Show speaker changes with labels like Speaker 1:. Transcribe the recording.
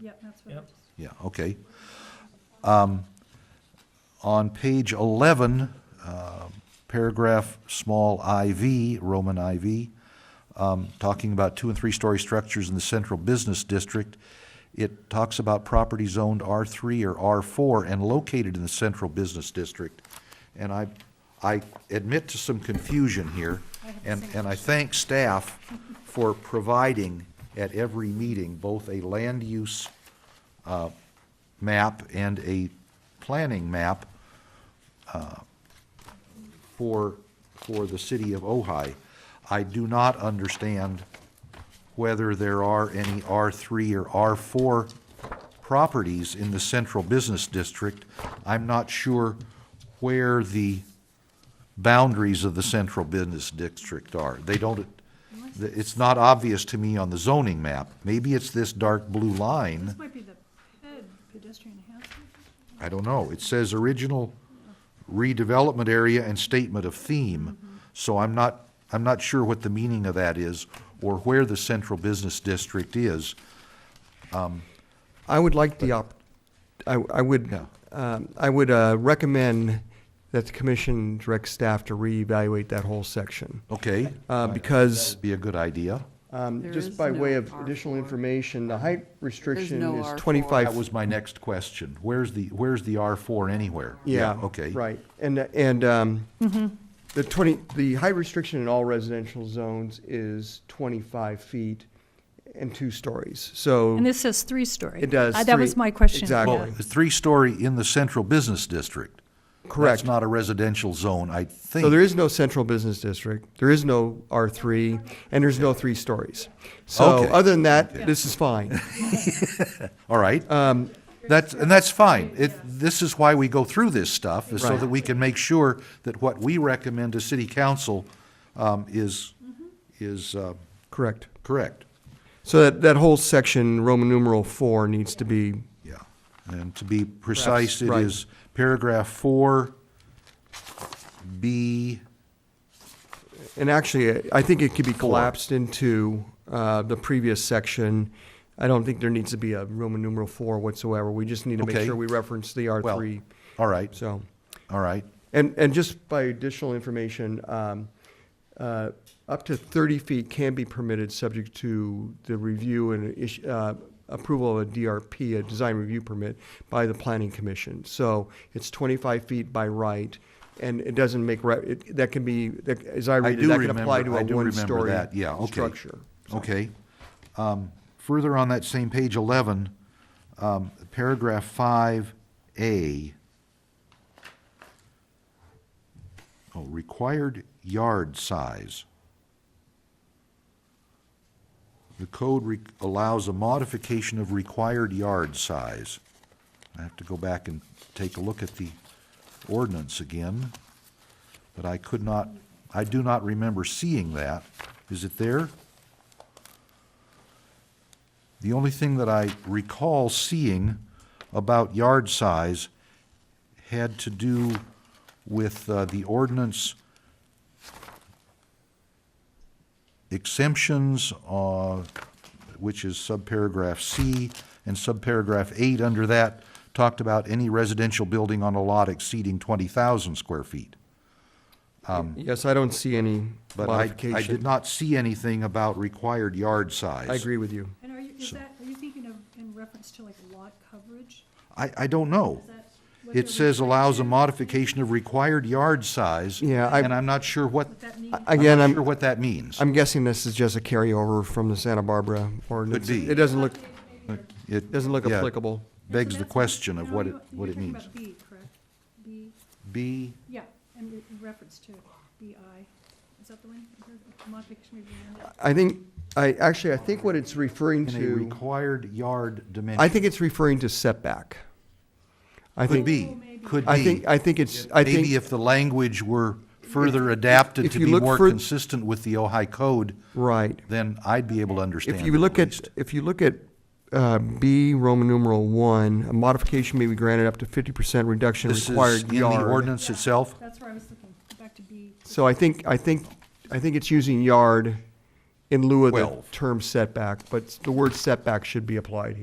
Speaker 1: Yep, that's what I
Speaker 2: Yep.
Speaker 1: just.
Speaker 3: Yeah, okay. Um, On page 11, uh, paragraph small IV, Roman IV, um, talking about two and three-story structures in the central business district, it talks about property zoned R3 or R4 and located in the central business district. And I, I admit to some confusion here,
Speaker 1: I have the
Speaker 3: and,
Speaker 1: same
Speaker 3: and I thank staff for providing at every meeting both a land use map and a planning map uh, for, for the city of Ojai. I do not understand whether there are any R3 or R4 properties in the central business district. I'm not sure where the boundaries of the central business district are. They don't, it's not obvious to me on the zoning map. Maybe it's this dark blue line.
Speaker 1: This might be the ped- pedestrian enhancement.
Speaker 3: I don't know, it says original redevelopment area and statement of
Speaker 4: Mm-hmm.
Speaker 3: theme, so I'm not, I'm not sure what the meaning of that is, or where the central business district is.
Speaker 4: I would like the op, I, I would,
Speaker 3: Yeah.
Speaker 4: um, I would, uh, recommend that the commission direct staff to reevaluate that whole section.
Speaker 3: Okay,
Speaker 4: Uh, because,
Speaker 3: be a good idea.
Speaker 4: um,
Speaker 5: There
Speaker 4: just
Speaker 5: is
Speaker 4: by
Speaker 5: no
Speaker 4: way of
Speaker 5: R4.
Speaker 4: additional information, the height restriction
Speaker 5: no
Speaker 4: is
Speaker 5: R4.
Speaker 4: twenty-five.
Speaker 3: That was my next question, where's the, where's the R four anywhere?
Speaker 4: Yeah.
Speaker 3: Okay.
Speaker 4: Right, and, and, um,
Speaker 5: Mm-hmm.
Speaker 4: the twenty, the height restriction in all residential zones is twenty-five feet and two stories, so.
Speaker 1: And this says three-story.
Speaker 4: It does,
Speaker 1: Uh, That was
Speaker 4: three-
Speaker 1: my question.
Speaker 4: exactly.
Speaker 1: yeah.
Speaker 3: Well, it's three-story in the central business district.
Speaker 4: Correct.
Speaker 3: That's not a residential zone, I think.
Speaker 4: So there is no central business district, there is no R three, and there's no three stories. So
Speaker 3: Okay.
Speaker 4: other than that, this is fine.
Speaker 3: All right. Um, That's, and that's fine. It, this is why we go through this stuff, is so
Speaker 4: Right.
Speaker 3: that we can make sure that what we recommend to city council, um, is, is, uh,
Speaker 4: Correct.
Speaker 3: correct.
Speaker 4: So that, that whole section, Roman numeral four, needs to be,
Speaker 3: Yeah. And to be precise, it
Speaker 4: right.
Speaker 3: is paragraph four, B,
Speaker 4: and actually, I think it could be collapsed into, uh, the previous section. I don't think there needs to be a Roman numeral four whatsoever, we just need to make
Speaker 3: Okay.
Speaker 4: sure we reference the R
Speaker 3: well,
Speaker 4: three,
Speaker 3: all right,
Speaker 4: so.
Speaker 3: all right.
Speaker 4: And, and just by additional information, um, uh, up to thirty feet can be permitted, subject to the review and ish- uh, approval of a DRP, a design review permit, by the planning commission. So it's twenty-five feet by right, and it doesn't make, re- it, that can be, that, as I
Speaker 3: I
Speaker 4: read it,
Speaker 3: do
Speaker 4: that can apply
Speaker 3: remember,
Speaker 4: to a
Speaker 3: I do remember
Speaker 4: one-story
Speaker 3: that, yeah, okay.
Speaker 4: structure.
Speaker 3: Okay. Um, Further on that same page 11, um, paragraph 5A. Oh, required yard size. The code re- allows a modification of required yard size. I have to go back and take a look at the ordinance again, but I could not, I do not remember seeing that. Is it there? The only thing that I recall seeing about yard size had to do with uh, the ordinance exemptions, uh, which is subparagraph C, and subparagraph eight under that talked about any residential building on a lot exceeding 20,000 square feet.
Speaker 4: Yes, I don't see any
Speaker 3: But I, I did
Speaker 4: modification.
Speaker 3: not see anything about required yard size.
Speaker 4: I agree with you.
Speaker 1: And are you, is that, are you thinking of in reference to like lot coverage?
Speaker 3: I, I don't know.
Speaker 1: Is that what
Speaker 3: It
Speaker 1: they're
Speaker 3: says
Speaker 1: referring
Speaker 3: allows a
Speaker 1: to?
Speaker 3: modification of required yard size.
Speaker 4: Yeah, I-
Speaker 3: And I'm not sure what,
Speaker 1: What that means?
Speaker 4: I- Again,
Speaker 3: not
Speaker 4: I'm.
Speaker 3: sure what that means.
Speaker 4: I'm guessing this is just a carryover from the Santa Barbara ordinance.
Speaker 3: be.
Speaker 4: It doesn't look,
Speaker 3: It
Speaker 4: doesn't look
Speaker 3: yeah,
Speaker 4: applicable.
Speaker 1: And so
Speaker 3: Begs the
Speaker 1: that's-
Speaker 3: question of
Speaker 1: no,
Speaker 3: what it,
Speaker 1: you-
Speaker 3: what it
Speaker 1: You're
Speaker 3: means.
Speaker 1: talking about B, correct? B,
Speaker 3: B,
Speaker 1: yeah, and re- in reference to BI. Is that the one? Modification of the-
Speaker 4: I think, I, actually, I think what it's referring
Speaker 3: in a
Speaker 4: to,
Speaker 3: required yard dimension.
Speaker 4: I think it's referring to setback. I
Speaker 3: Could
Speaker 4: think,
Speaker 3: be, could be.
Speaker 4: I think, I think it's, I
Speaker 3: Maybe
Speaker 4: think,
Speaker 3: if the language were further adapted
Speaker 4: if
Speaker 3: to
Speaker 4: you
Speaker 3: be
Speaker 4: look
Speaker 3: more
Speaker 4: fur-
Speaker 3: consistent with the Ojai code,
Speaker 4: right.
Speaker 3: then I'd be able to understand.
Speaker 4: If you
Speaker 3: it
Speaker 4: look at,
Speaker 3: least.
Speaker 4: if you look at, uh, B, Roman numeral one, a modification may be granted up to fifty percent reduction in
Speaker 3: This is
Speaker 4: required E
Speaker 3: in the
Speaker 4: yard.
Speaker 3: ordinance itself?
Speaker 1: That's where I was looking, back to B.
Speaker 4: So I think, I think, I think it's using yard in lieu of the
Speaker 3: Twelve.
Speaker 4: term setback, but the word setback should be applied here.